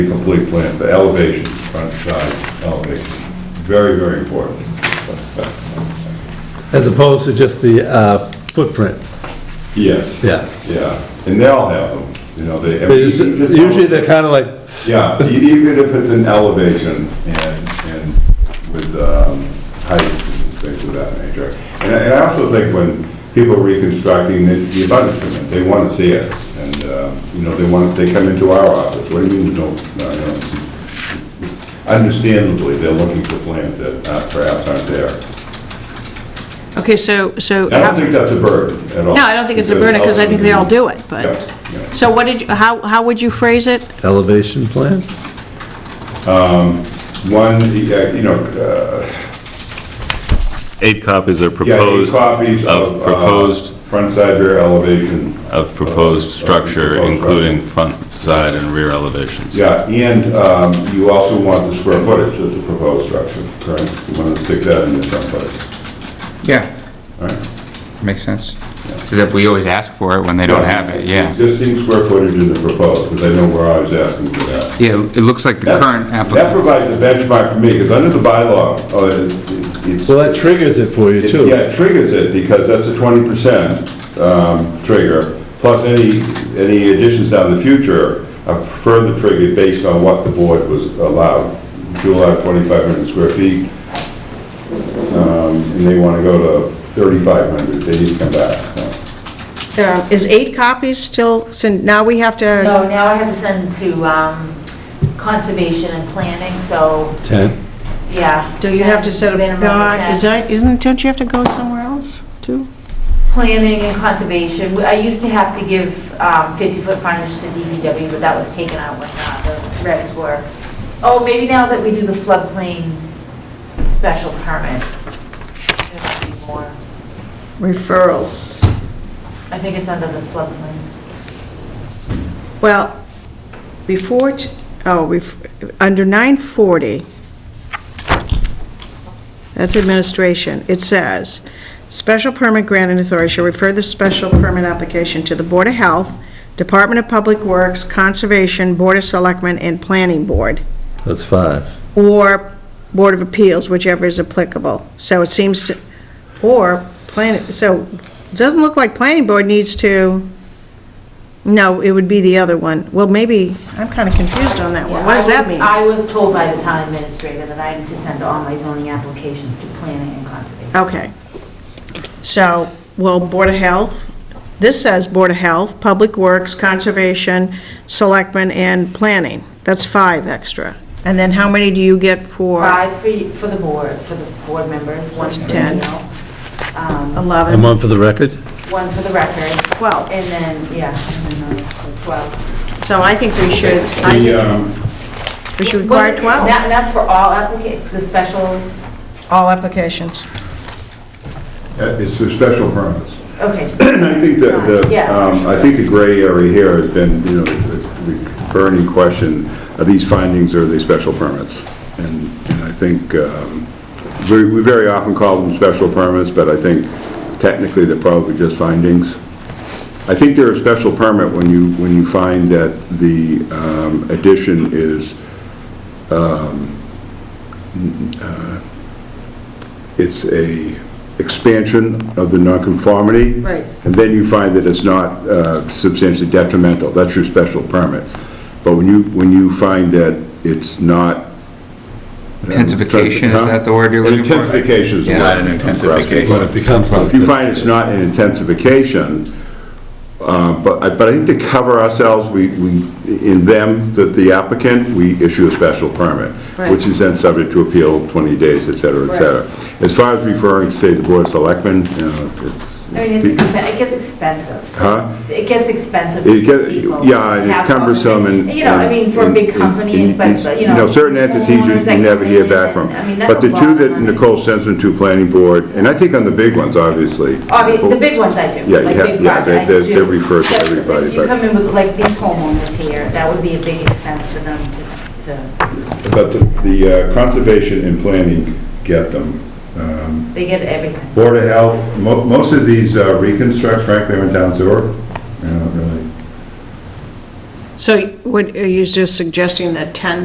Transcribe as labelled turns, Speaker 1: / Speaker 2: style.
Speaker 1: the complete plan, the elevation, front side elevation, very, very important.
Speaker 2: As opposed to just the uh, footprint,
Speaker 1: Yes.
Speaker 2: yeah.
Speaker 1: Yeah, and they all have them, you know, they.
Speaker 2: There's- Usually they're kind of like,
Speaker 1: Yeah, e- even if it's an elevation and, and with um, heights and things of that nature. And I and I also think when people are reconstructing, the the abundance comment, they want to see it. And, uh, you know, they want, they come into our office, what do you mean you don't, no, no. Understandably, they're looking for plans that uh, perhaps aren't there.
Speaker 3: Okay, so, so,
Speaker 1: I don't
Speaker 3: how-
Speaker 1: think that's a burden at all.
Speaker 3: no, I don't think it's a burden, because I think they all do it,
Speaker 1: Yeah,
Speaker 3: but,
Speaker 1: yeah.
Speaker 3: so what did, you? how, how would you phrase it?
Speaker 2: elevation plans?
Speaker 1: One, uh, you know, uh,
Speaker 4: Eight copies are
Speaker 1: yeah, eight
Speaker 4: proposed
Speaker 1: copies of.
Speaker 4: of
Speaker 1: uh,
Speaker 4: proposed,
Speaker 1: Front side rear elevation,
Speaker 4: of proposed
Speaker 1: of
Speaker 4: structure,
Speaker 1: proposed
Speaker 4: including front, side, and rear elevations.
Speaker 1: yeah, and um, you also want the square footage of the proposed structure, correct? You want to stick that in the front footage,
Speaker 5: Yeah,
Speaker 1: all right?
Speaker 5: makes sense. 'Cause if we always ask for it when they don't have it, yeah.
Speaker 1: Existing square footage in the proposed, because I know where I was asking for that.
Speaker 5: Yeah, it looks like the
Speaker 1: That-
Speaker 5: current
Speaker 1: That
Speaker 5: applicant,
Speaker 1: provides a benchmark for me, because under the bylaw, uh, it- it's.
Speaker 2: Well, that triggers it for you
Speaker 1: It's-
Speaker 2: too.
Speaker 1: Yeah, it triggers it, because that's a twenty percent um, trigger, plus any, any additions down the future are further triggered based on what the board was allowed. If you allow twenty-five hundred square feet, um, and they want to go to thirty-five hundred, they need to come back. so.
Speaker 6: Um, Is eight copies still, so now we have to,
Speaker 7: No, now I have to send to um, conservation and planning, so,
Speaker 2: 10.
Speaker 7: yeah.
Speaker 6: do you have to set a,
Speaker 7: Minimum of
Speaker 6: no, is
Speaker 7: 10.
Speaker 6: that, isn't, don't you have to go somewhere else, too?
Speaker 7: Planning and conservation, I used to have to give 50-foot frontage to DPW, but that was taken out when uh, the regs were. Oh, maybe now that we do the floodplain special permit. it might be more.
Speaker 6: Referrals.
Speaker 7: I think it's under the floodplain.
Speaker 6: Well, before, t- oh, ref- under 940, that's administration, it says, "Special permit granting authority shall refer the special permit application to the Board of Health, Department of Public Works, Conservation, Board of Selectmen, and Planning Board."
Speaker 2: That's five.
Speaker 6: or Board of Appeals, whichever is applicable. So it seems to, or plan, so it doesn't look like Planning Board needs to, no, it would be the other one. Well, maybe, I'm kind of confused on that one.
Speaker 7: Yeah,
Speaker 6: What does
Speaker 7: I
Speaker 6: that
Speaker 7: was-
Speaker 6: mean?
Speaker 7: I was told by the town administrator that I need to send all my zoning applications to planning and conservation.
Speaker 6: Okay. So, well, Board of Health, this says Board of Health, Public Works, Conservation, Selectmen, and Planning. That's five extra. And then how many do you get for?
Speaker 7: Five for, you- for the board, for the board members, one
Speaker 6: That's
Speaker 7: for
Speaker 6: ten.
Speaker 7: Neil, um,
Speaker 6: 11.
Speaker 2: And one for the record?
Speaker 7: one for the record.
Speaker 6: Twelve.
Speaker 7: And then, yeah, and then uh, another for 12.
Speaker 6: So I think we should, I
Speaker 1: The,
Speaker 6: think
Speaker 1: um,
Speaker 6: we should require
Speaker 7: And
Speaker 6: 12,
Speaker 7: that- and that's for all applica, the special,
Speaker 6: all applications.
Speaker 1: uh, It's for special permits.
Speaker 7: okay.
Speaker 1: I think that the,
Speaker 7: Yeah.
Speaker 1: um, I think the gray area here has been, you know, the the burning question, are these findings or are they special permits? And and I think, um, we we very often call them special permits, but I think technically they're probably just findings. I think they're a special permit when you, when you find that the um, addition is, um, n- uh, it's a expansion of the nonconformity.
Speaker 6: Right.
Speaker 1: And then you find that it's not uh, substantially detrimental, that's your special permit. But when you, when you find that it's not. uh,
Speaker 5: Intensification, is that the word you're
Speaker 1: An
Speaker 5: looking for?
Speaker 1: Intensification is the
Speaker 5: Yeah.
Speaker 1: word
Speaker 5: Not an
Speaker 1: I'm grasping
Speaker 5: intensification.
Speaker 1: for.
Speaker 2: But it becomes
Speaker 1: If you find it's not an intensification, uh, but, I- but I think to cover ourselves, we, we, in them, that the applicant, we issue a special permit, which
Speaker 6: Right.
Speaker 1: is then subject to appeal 20 days, et cetera, et cetera. As far as referring, say, the Board of Selectmen, you know, it's.
Speaker 7: I mean, it's, expen- it gets expensive.
Speaker 1: Huh?
Speaker 7: It gets expensive
Speaker 1: It
Speaker 7: for
Speaker 1: get-
Speaker 7: people.
Speaker 1: yeah,
Speaker 7: to
Speaker 1: it's
Speaker 7: have all the-
Speaker 1: cumbersome and-
Speaker 7: You know, I mean, for a big
Speaker 1: and-
Speaker 7: company,
Speaker 1: and-
Speaker 7: but, but, you know.
Speaker 1: certain entities you-
Speaker 7: homeowners that
Speaker 1: you never
Speaker 7: come
Speaker 1: hear
Speaker 7: in
Speaker 1: back
Speaker 7: and-
Speaker 1: from.
Speaker 7: I mean, that's
Speaker 1: But
Speaker 7: a
Speaker 1: the
Speaker 7: lot
Speaker 1: two
Speaker 7: of
Speaker 1: that
Speaker 7: money.
Speaker 1: Nicole sends them to Planning Board, and I think on the big ones, obviously.
Speaker 7: I mean, the big ones I do.
Speaker 1: Yeah,
Speaker 7: like
Speaker 1: yeah,
Speaker 7: big
Speaker 1: yeah, they-
Speaker 7: projects
Speaker 1: they-
Speaker 7: I do.
Speaker 1: they're referred to
Speaker 7: But
Speaker 1: everybody,
Speaker 7: If you
Speaker 1: but-
Speaker 7: come in with, like, these homeowners here, that would be a big expense for them just to,
Speaker 1: But the- the uh, conservation and planning get them. um,
Speaker 7: they get everything.
Speaker 1: Board of Health, mo- most of these uh, reconstruct, frankly, are in town sewer. They're not really-
Speaker 8: So
Speaker 6: So what, are you just suggesting that 10